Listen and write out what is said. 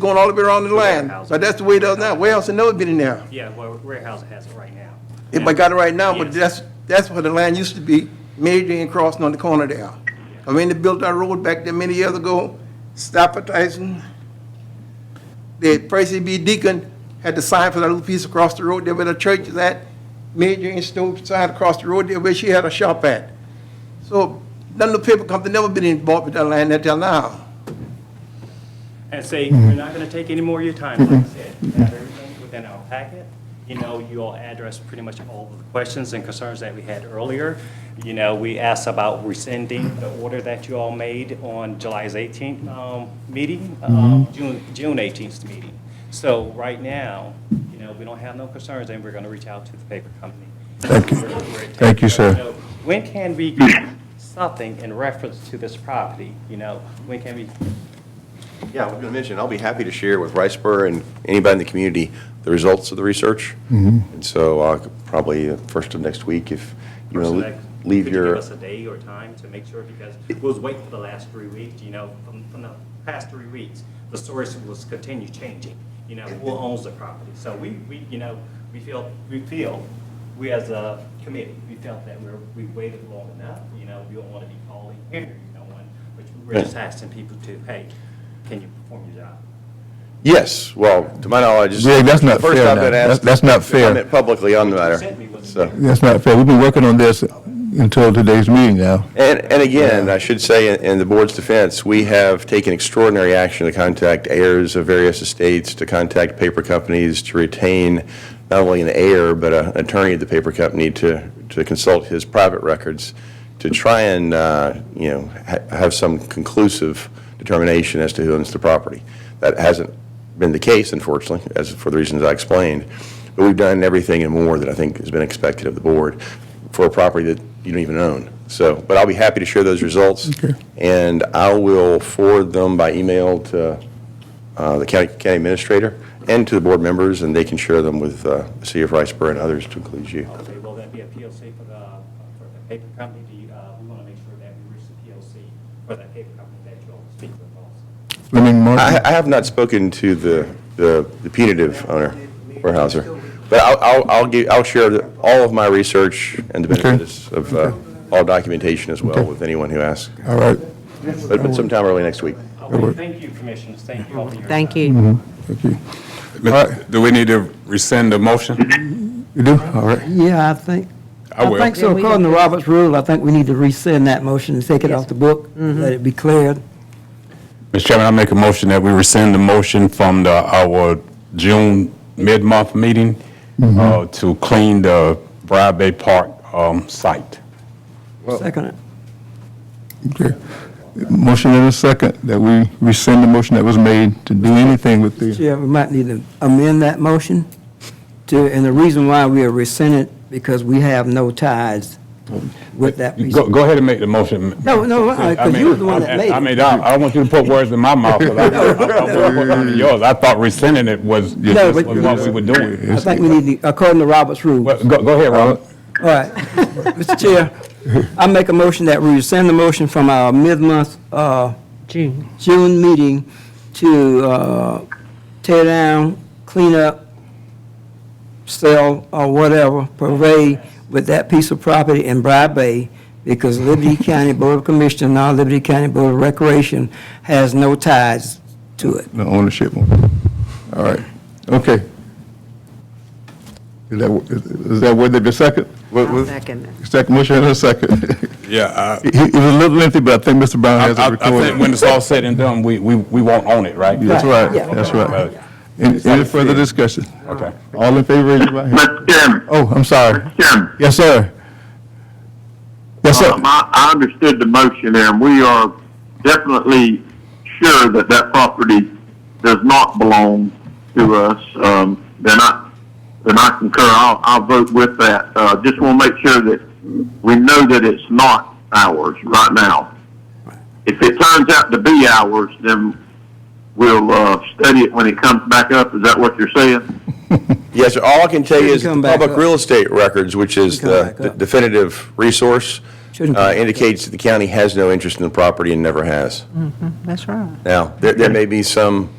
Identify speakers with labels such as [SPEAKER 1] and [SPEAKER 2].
[SPEAKER 1] going all the way around the line.
[SPEAKER 2] Warehouse.
[SPEAKER 1] But that's the way it does now. Where else it never been in there?
[SPEAKER 2] Yeah, well, warehouse has it right now.
[SPEAKER 1] If I got it right now, but
[SPEAKER 2] Yes.
[SPEAKER 1] that's, that's where the line used to be, Major and crossing on the corner there. I mean, they built that road back there many years ago, stop advertising. The Percy B. Deacon had to sign for that little piece across the road there where the church is at. Major and Stowe signed across the road there where she had a shop at. So none of the paper company never been involved with that land until now.
[SPEAKER 2] And say,
[SPEAKER 3] Mm-hmm.
[SPEAKER 2] we're not gonna take any more of your time, like I said, We have everything within our packet. You know, you all addressed pretty much all of the questions and concerns that we had earlier. You know, we asked about rescinding the order that you all made on July's 18th um, meeting, um,
[SPEAKER 3] Mm-hmm.
[SPEAKER 2] June June 18th meeting. So right now, you know, we don't have no concerns, and we're gonna reach out to the paper company. Thank you.
[SPEAKER 3] Thank you, sir.
[SPEAKER 2] When can we get something in reference to this property, you know? When can we
[SPEAKER 4] Yeah, I was going to mention, I'll be happy to share with Riceboro and anybody in the community the results of the research.
[SPEAKER 3] Mm-hmm.
[SPEAKER 4] And so uh, probably the first of next week, if you
[SPEAKER 2] Person
[SPEAKER 4] want
[SPEAKER 2] that-
[SPEAKER 4] to leave
[SPEAKER 2] Could you give
[SPEAKER 4] your,
[SPEAKER 2] us a day or time to make sure, because we was waiting for the last three weeks, you know, from, from the past three weeks, the source was continue changing, you know, who owns the property. So we, we, you know, we feel, we feel, we as a committee, we felt that we're, we waited long enough, you know, we don't want to be calling here, you know, one, which we're just asking people to, hey, can you perform your job?
[SPEAKER 4] yes, well, to my knowledge. it's
[SPEAKER 3] Greg, that's not
[SPEAKER 4] the first
[SPEAKER 3] fair
[SPEAKER 4] I've
[SPEAKER 3] now.
[SPEAKER 4] been
[SPEAKER 3] That's-
[SPEAKER 4] asked
[SPEAKER 3] that's not
[SPEAKER 4] to
[SPEAKER 3] fair.
[SPEAKER 4] comment Publicly on the
[SPEAKER 2] Sent me
[SPEAKER 4] matter.
[SPEAKER 2] was-
[SPEAKER 4] So.
[SPEAKER 3] That's not fair. We've been working on this until today's meeting now.
[SPEAKER 4] And, and again, I should say, in- in the board's defense, we have taken extraordinary action to contact heirs of various estates, to contact paper companies, to retain not only an heir, but an attorney of the paper company to, to consult his private records, to try and, uh, you know, ha- have some conclusive determination as to who owns the property. That hasn't been the case, unfortunately, as, for the reasons I explained. But we've done everything and more that I think has been expected of the board for a property that you don't even own. So, but I'll be happy to share those results. And I will forward them by email to uh, the county county administrator and to the board members, and they can share them with uh, the city of Riceboro and others to include you.
[SPEAKER 2] Okay, will that be a PLC for the, for the paper company? Do you, uh, we want to make sure that we reach the PLC for that paper company that you all speak with also.
[SPEAKER 3] Fleming
[SPEAKER 4] I
[SPEAKER 3] Martin,
[SPEAKER 4] I have not spoken to the- the the punitive owner, Warehouser, but I'll- I'll I'll give- I'll share the- all of my research and the benefits of uh, all documentation as well with anyone who asks,
[SPEAKER 3] all right.
[SPEAKER 4] but but sometime early next week.
[SPEAKER 2] Okay, thank you, commissioners. Thank you all for your time.
[SPEAKER 5] Thank you.
[SPEAKER 3] Thank you. right.
[SPEAKER 6] Do we need to rescind the motion?
[SPEAKER 3] You do? All right.
[SPEAKER 7] Yeah, I think,
[SPEAKER 6] I
[SPEAKER 7] I
[SPEAKER 6] will.
[SPEAKER 7] think so.
[SPEAKER 5] Yeah, we
[SPEAKER 7] According to
[SPEAKER 5] don't-
[SPEAKER 7] Robert's rule, I think we need to rescind that motion and take it off the book,
[SPEAKER 5] Mm-hmm.
[SPEAKER 7] let it be cleared.
[SPEAKER 6] Mr. Chairman, I make a motion that we rescind the motion from the, our June mid-month meeting
[SPEAKER 7] Mm-hmm.
[SPEAKER 6] uh, to clean the Briar Bay Park um, site.
[SPEAKER 7] Second it.
[SPEAKER 3] Okay. Motion and a second that we rescind the motion that was made to do anything with the,
[SPEAKER 7] Yeah, we might need to amend that motion to, and the reason why we are rescinding it, because we have no ties with that piece.
[SPEAKER 6] Go, go ahead and make the motion. m-
[SPEAKER 7] No, no, uh, 'cause you was the one that
[SPEAKER 6] I mean,
[SPEAKER 7] made it.
[SPEAKER 6] I mean, I, I don't want you to put words in my mouth, 'cause I, I, I want to put under yours. I thought rescinding it was,
[SPEAKER 7] No,
[SPEAKER 6] was
[SPEAKER 7] but-
[SPEAKER 6] what we were doing.
[SPEAKER 7] I think we need to, according to Robert's rule.
[SPEAKER 6] Well, Go, go ahead, Robert.
[SPEAKER 7] All right. Mr. Chair, I make a motion that we rescind the motion from our mid-month, uh,
[SPEAKER 5] June.
[SPEAKER 7] June meeting to uh, tear down, clean up, sell, or whatever, parade with that piece of property in Briar Bay, because Liberty County Board of Commissioners, and now Liberty County Board of Recreation, has no ties to it.
[SPEAKER 3] the ownership one. All right. Okay. Is that, is that worth it, the second?
[SPEAKER 5] I'll second that.
[SPEAKER 3] Second, motion and a second.
[SPEAKER 6] Yeah,
[SPEAKER 3] It it was a little lengthy, but I think Mr. Brown
[SPEAKER 6] I,
[SPEAKER 3] has it
[SPEAKER 6] I I think
[SPEAKER 3] recorded.
[SPEAKER 6] when it's all said and done, we, we, we won't own it, right?
[SPEAKER 3] That's right,
[SPEAKER 7] Yeah.
[SPEAKER 3] that's right.
[SPEAKER 6] Okay.
[SPEAKER 3] Any any further discussion?
[SPEAKER 6] Okay.
[SPEAKER 3] All in favor, raise your right hand.
[SPEAKER 8] Mr. Chairman,
[SPEAKER 3] Oh, I'm sorry.
[SPEAKER 8] Chairman,
[SPEAKER 3] Yes, sir. Yes, sir.
[SPEAKER 8] um, I, I understood the motion there, and we are definitely sure that that property does not belong to us. Um, then I, then I concur, I'll, I'll vote with that. Uh, just want to make sure that we know that it's not ours right now. If it turns out to be ours, then we'll, uh, study it when it comes back up. Is that what you're saying?
[SPEAKER 4] Yes, sir. all I can tell you is the
[SPEAKER 7] Shouldn't come back
[SPEAKER 4] public
[SPEAKER 7] up.
[SPEAKER 4] real estate records, which is
[SPEAKER 7] Shouldn't
[SPEAKER 4] the
[SPEAKER 7] come back
[SPEAKER 4] de-
[SPEAKER 7] up.
[SPEAKER 4] definitive resource,
[SPEAKER 7] Shouldn't come
[SPEAKER 4] uh,
[SPEAKER 7] back up.
[SPEAKER 4] indicates that the county has no interest in the property and never has.
[SPEAKER 5] That's right.
[SPEAKER 4] Now, there, there may be some